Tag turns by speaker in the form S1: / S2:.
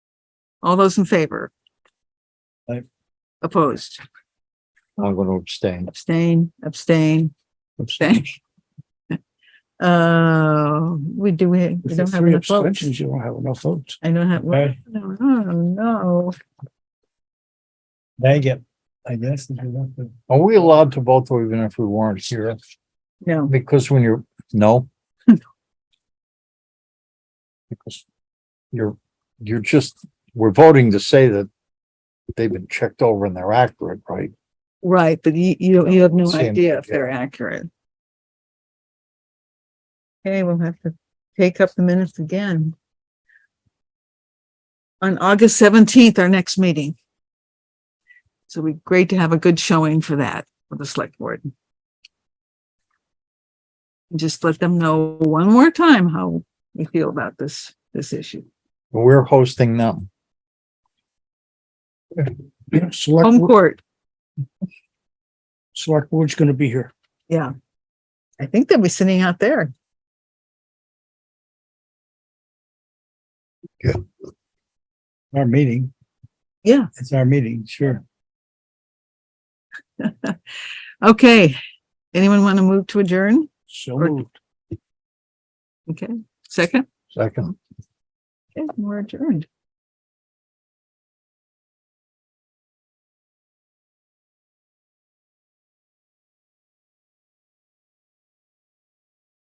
S1: All those in favor?
S2: Aye.
S1: Opposed?
S2: I'm gonna abstain.
S1: Abstain, abstain, abstain. Uh, we do, we we
S2: If
S1: don't
S2: there's
S1: have
S2: three
S1: enough votes.
S2: abstentions, you don't have enough votes.
S1: I don't have,
S2: Okay.
S1: no, oh, no.
S2: Dang it, I guess. Are we allowed to vote though, even if we weren't here?
S1: No,
S2: Because when you're, no? Because you're, you're just, we're voting to say that they've been checked over and they're accurate, right?
S1: right, but you, you, you have no
S2: Same,
S1: idea if they're accurate. Okay, we'll have to take up the minutes again. On August seventeenth, our next meeting. So it'd be great to have a good showing for that, for the select board. Just let them know one more time how we feel about this, this issue.
S2: We're hosting them.
S1: Home
S2: Select,
S1: court.
S2: select board's gonna be here.
S1: Yeah. I think they'll be sitting out there.
S2: Our meeting.
S1: Yeah.
S2: It's our meeting, sure.
S1: Okay. Anyone want to move to adjourn?
S2: So
S1: moved. Okay, second,
S2: Second.
S1: Okay, we're adjourned.